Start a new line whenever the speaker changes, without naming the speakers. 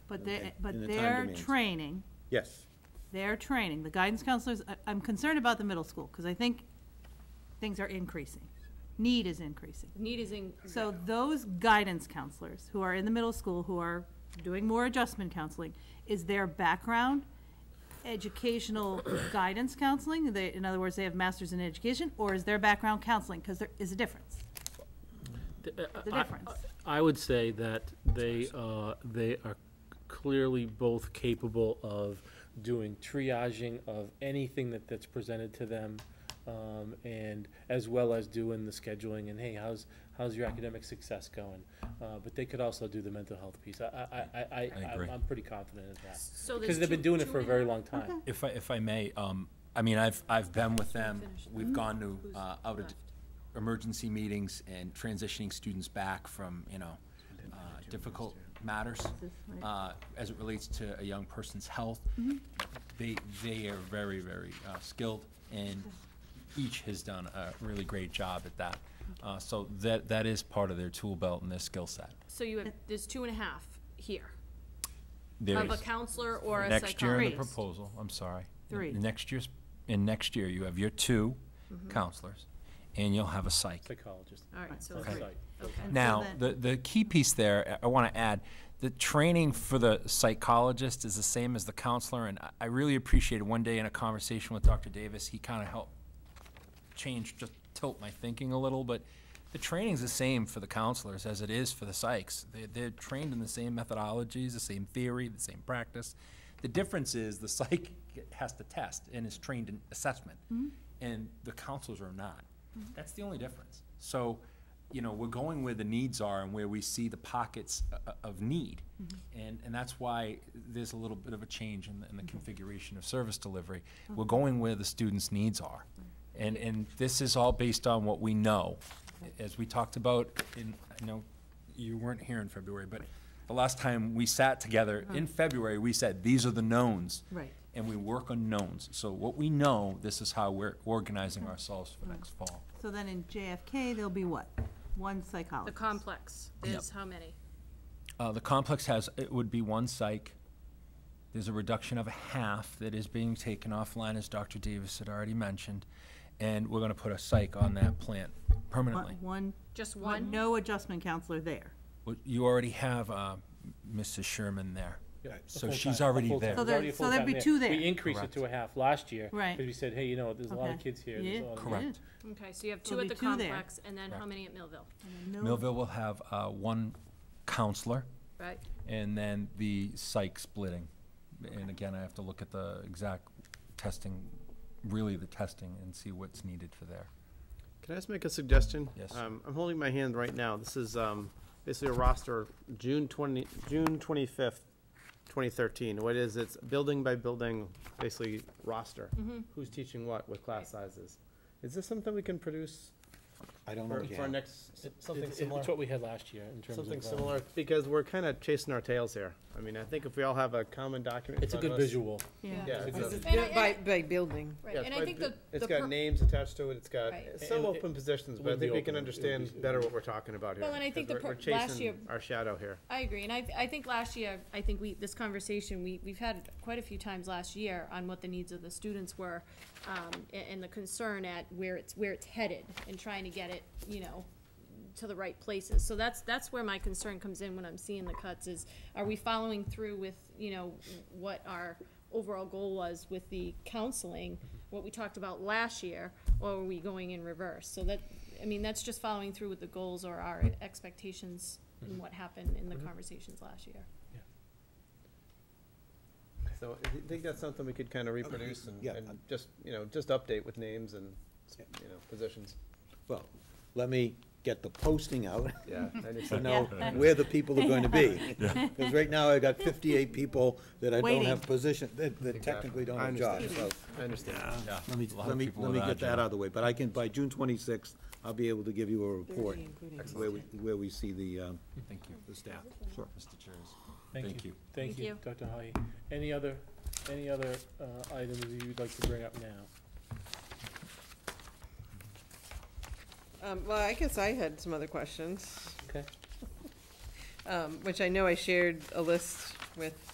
But
And
they,
the- and
but
the time
their
demands.
training,
Yes,
their training, the guidance counselors, I- I'm concerned about the middle school, because I think things are increasing. Need is increasing.
Need is in.
So those guidance counselors who are in the middle school, who are doing more adjustment counseling, is their background educational guidance counseling? They, in other words, they have masters in education, or is their background counseling? Because there is a difference.
Th- uh,
The
I-
difference.
I I would say that they, uh, they are clearly both capable of doing triaging of anything that, that's presented to them, um, and as well as doing the scheduling and, hey, how's, how's your academic success going? Uh, But they could also do the mental health piece. I, I, I- I, I,
agree.
I'm- I'm pretty confident of that.
So there's
Because they've been
two-
doing it
two
for a
in
very
that?
long time.
If I, if I may, um, I mean, I've, I've been with them, we've gone to, uh, out of
left?
emergency meetings and transitioning students back from, you know, uh, difficult matters, uh, as it relates to a young person's health. They, they are very, very, uh, skilled, and each has done a really great job at that. Uh, so that, that is part of their tool belt and their skill set.
So you have, there's two and a half here,
There's-
of a counselor or a
Next year in the
psychologist.
proposal, I'm sorry. in-
Three. Mm-hmm.
in Next year's, in next year, you have your two counselors, and you'll have a psych.
Psychologist.
All right, so
Okay.
three, okay.
Now,
then-
the, the key piece there, I want to add, the training for the psychologist is the same as the counselor, and I- I really appreciated one day in a conversation with Dr. Davis, he kind of helped change, just tilt my thinking a little, but the training's the same for the counselors as it is for the psychs. They, they're trained in the same methodologies, the same theory, the same practice. The difference is the psych has to test and is trained in assessment, and the counselors are not. That's the only difference. So, you know, we're going where the needs are and where we see the pockets o- o- of need. And, and that's why there's a little bit of a change in the, in the configuration of service delivery. We're going where the students' needs are. And, and this is all based on what we know. As we talked about in, I know you weren't here in February, but the last time we sat together in February, we said, these are the knowns.
Right.
And we work on knowns. So what we know, this is how we're organizing ourselves for next fall.
So then in JFK, there'll be what? One
The
psychologist.
complex is how many?
Uh, the complex has, it would be one psych. There's a reduction of a half that is being taken offline, as Dr. Davis had already mentioned. And we're gonna put a psych on that plant permanently.
One- One,
Just
one,
one?
no adjustment counselor there.
Well, You already have, uh, Mrs. Sherman there.
Yeah, a
So
full-time-
she's
a
already
full-time-
there.
So
there's already
there-
a
so there'd
full-time
be two there.
We increased it to a half last year.
Right.
Because we said, hey, you know, there's a lot of
Okay.
kids here.
Yeah.
there's a lot of-
Correct.
Yeah.
Okay, so you have two
There'll
at
be
the
two there.
complex, and then how many at Millville,
No-
Millville will have, uh, one counselor
right?
and then the psych splitting. And again, I have to look at the exact testing, really the testing and see what's needed for there.
Can I just make a suggestion?
Yes.
Um, I'm holding my hand right now. This is, um, basically a roster, June twenty, June twenty-fifth, twenty thirteen. What is, it's building by building, basically roster. Who's teaching what with class sizes? Is this something we can produce
I don't know.
for,
if you
for our
have-
next,
Oh, It-
something
it-
similar?
It's what we had last year in terms of.
Something
uh,
similar, because we're kinda chasing our tails here. I mean, I think if we all have a common document. in
It's a
front of
good
us-
visual.
Yeah.
Yeah. it's a-
By, by building.
Right,
yeah,
and
it's
I
by
think
bu-
the.
It's
the
got
per-
names attached to it, it's got
Right.
some
And it-
open positions,
it
but I
would be
think we can
open, it would be-
understand
it would
better
be-
what we're talking about here.
Well, and I think
'cause
the
we're-
per- last
We're
year-
chasing our shadow here.
I agree, and I, I think last year, I think we, this conversation, we, we've had quite a few times last year on what the needs of the students were, um, a- and, the concern at where it's, where it's headed, and trying to get it, you know, to the right places, so that's, that's where my concern comes in when I'm seeing the cuts, is are we following through with, you know, what our overall goal was with the counseling, what we talked about last year, or are we going in reverse, so that, I mean, that's just following through with the goals or our expectations and what happened in the conversations last year.
So I thi- think that's something we could kind of reproduce and,
yeah,
and
um,
just, you know, just update with names and,
Yeah.
you know, positions.
Well, let me get the posting out
Yeah. I need
to
some-
know where the people are going to be. Because right now, I've got fifty-eight people that I don't
Waiting.
have position, that that
Exactly.
technically don't
I
have jobs, so.
understand. I understand.
Yeah,
Let me,
a lot of
let me,
people
let me
without
get that
jobs.
out of the way, but I can, by June twenty-sixth, I'll be able to give you a report
Thirty, including
where we, where we see the, um,
Thank you.
the staff. Sure.
Mr. Chairs.
Thank
Thank
you.
you.
Thank
Thank
you,
you.
Dr. Haye. Any other, any other uh, items that you'd like to bring up now?
Um, well, I guess I had some other questions,
Okay.
um, which I know I shared a list with